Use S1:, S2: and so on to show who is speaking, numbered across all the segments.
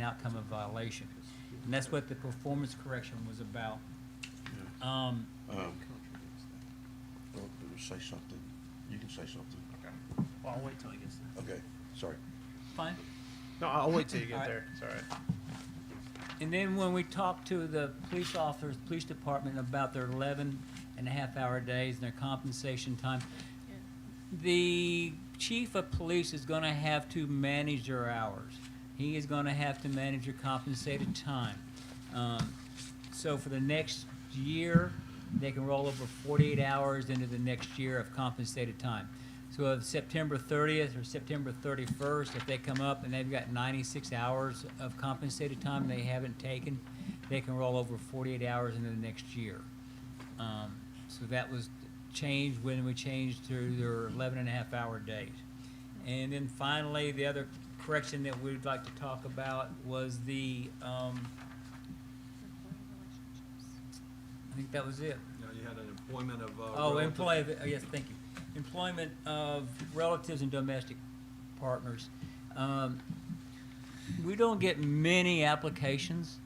S1: outcome of violation. And that's what the performance correction was about. Um,
S2: Um, Don't do- say something. You can say something.
S3: Well, I'll wait till he gets there.
S2: Okay, sorry.
S1: fine.
S3: No, I'll wait till you get
S1: Alright.
S3: there. It's all right.
S1: And then when we talked to the police officers, police department about their 11 and a half hour days and their compensation time, the chief of police is going to have to manage their hours. He is going to have to manage your compensated time. Um, so for the next year, they can roll over 48 hours into the next year of compensated time. So of September 30th or September 31st, if they come up and they've got 96 hours of compensated time they haven't taken, they can roll over 48 hours into the next year. Um, So that was changed when we changed to their 11 and a half hour days. And then finally, the other correction that we'd like to talk about was the, um, I think that was it.
S4: No, you had an employment of, uh.
S1: Oh,
S4: relative-
S1: employee, oh, yes, thank you. Employment of relatives and domestic partners. Um, We don't get many applications,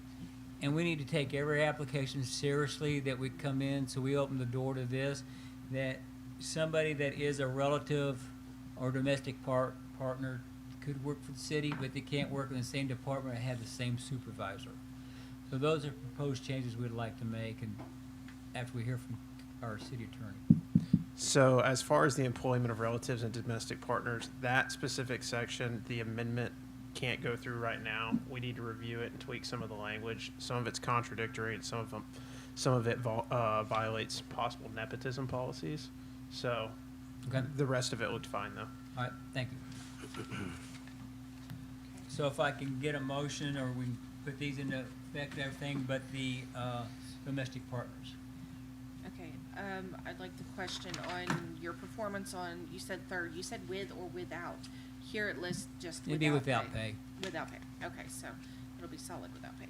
S1: and we need to take every application seriously that we come in, so we open the door to this, that somebody that is a relative or domestic part, partner could work for the city, but they can't work in the same department and have the same supervisor. So those are proposed changes we'd like to make, and after we hear from our city attorney.
S3: So, as far as the employment of relatives and domestic partners, that specific section, the amendment can't go through right now. We need to review it and tweak some of the language. Some of it's contradictory, and some of them, some of it vol- uh, violates possible nepotism policies. So,
S1: Okay,
S3: the rest of it looked fine though.
S1: all right, thank you. So if I can get a motion, or we can put these into effect, everything but the uh, domestic partners.
S5: Okay, um, I'd like to question on your performance on, you said third, you said with or without. Here it lists just
S1: It'd
S5: without
S1: be
S5: pay.
S1: without pay.
S5: Without pay, okay, so it'll be solid without pay,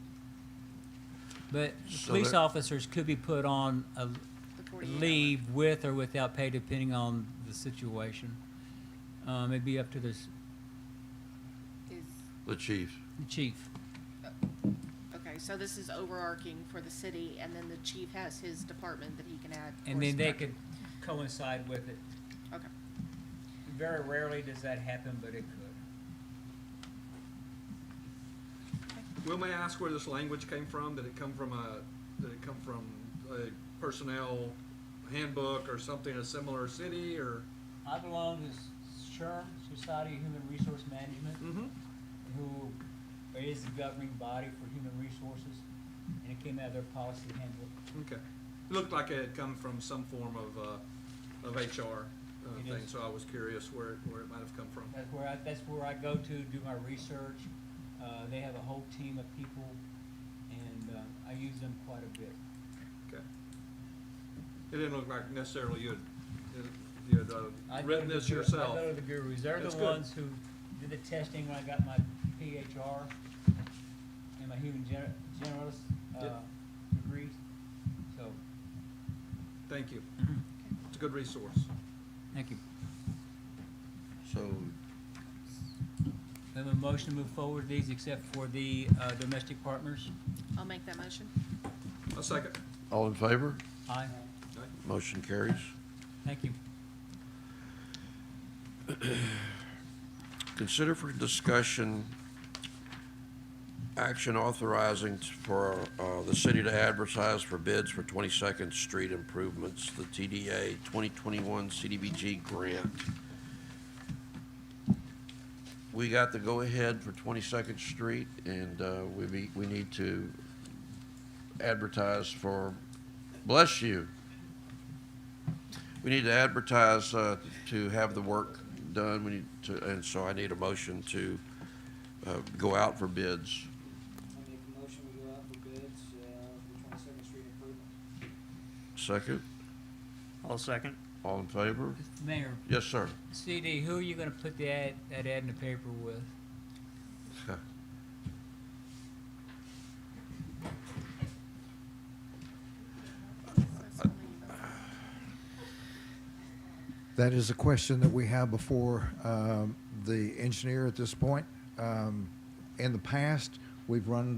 S1: But
S2: So
S1: police
S2: there-
S1: officers could be put on a
S5: the forty-eight hour.
S1: leave with or without pay, depending on the situation. Um, It'd be up to the s-
S5: Is,
S2: The chief.
S1: the chief.
S5: okay, so this is overarching for the city, and then the chief has his department that he can add.
S1: And
S5: or
S1: then they could
S5: subtract.
S1: coincide with it.
S5: Okay,
S1: Very rarely does that happen, but it could.
S4: Will may I ask where this language came from? Did it come from a, did it come from a personnel handbook or something, a similar city or?
S1: I belong to SHRM, Society of Human Resource Management.
S4: Mm-hmm.
S1: who is the governing body for human resources, and it came out of their policy handbook.
S4: Okay. It Looked like it had come from some form of, uh, of HR uh,
S1: It
S4: thing,
S1: is.
S4: so I was curious where, it- where it might have come from.
S1: That's where I, that's where I go to do my research. Uh, they have a whole team of people, and, uh, I use them quite a bit.
S4: Okay. It didn't look like necessarily you had, you had
S1: I
S4: uh,
S1: go
S4: written
S1: to the
S4: this
S1: guru-
S4: yourself.
S1: I go to the gurus. They're
S4: That's
S1: the
S4: good.
S1: ones who did the testing when I got my PHR and my human gener- generalist,
S4: Yeah.
S1: uh, degrees, so.
S4: Thank you.
S1: Mm-hmm.
S4: It's a good resource.
S1: Thank you.
S2: So,
S1: Then a motion to move forward these except for the, uh, domestic partners.
S5: I'll make that motion.
S4: A second.
S2: all in favor?
S1: Aye.
S2: Motion carries.
S1: Thank you.
S2: Consider for discussion, action authorizing t- for, uh, the city to advertise for bids for Twenty-second Street improvements, the TDA twenty-twenty-one CDBG grant. We got the go-ahead for Twenty-second Street, and, uh, we be, we need to advertise for, bless you. We need to advertise uh, to have the work done, we need to, and so I need a motion to uh, go out for bids.
S6: I make a motion, we go out for bids, uh, for twenty-second street improvement.
S2: Second,
S3: I'll second.
S2: all in favor?
S1: Mayor,
S2: Yes, sir.
S1: CD, who are you gonna put the ad, that ad in the paper with?
S7: That is a question that we have before um, the engineer at this point. Um, In the past, We've run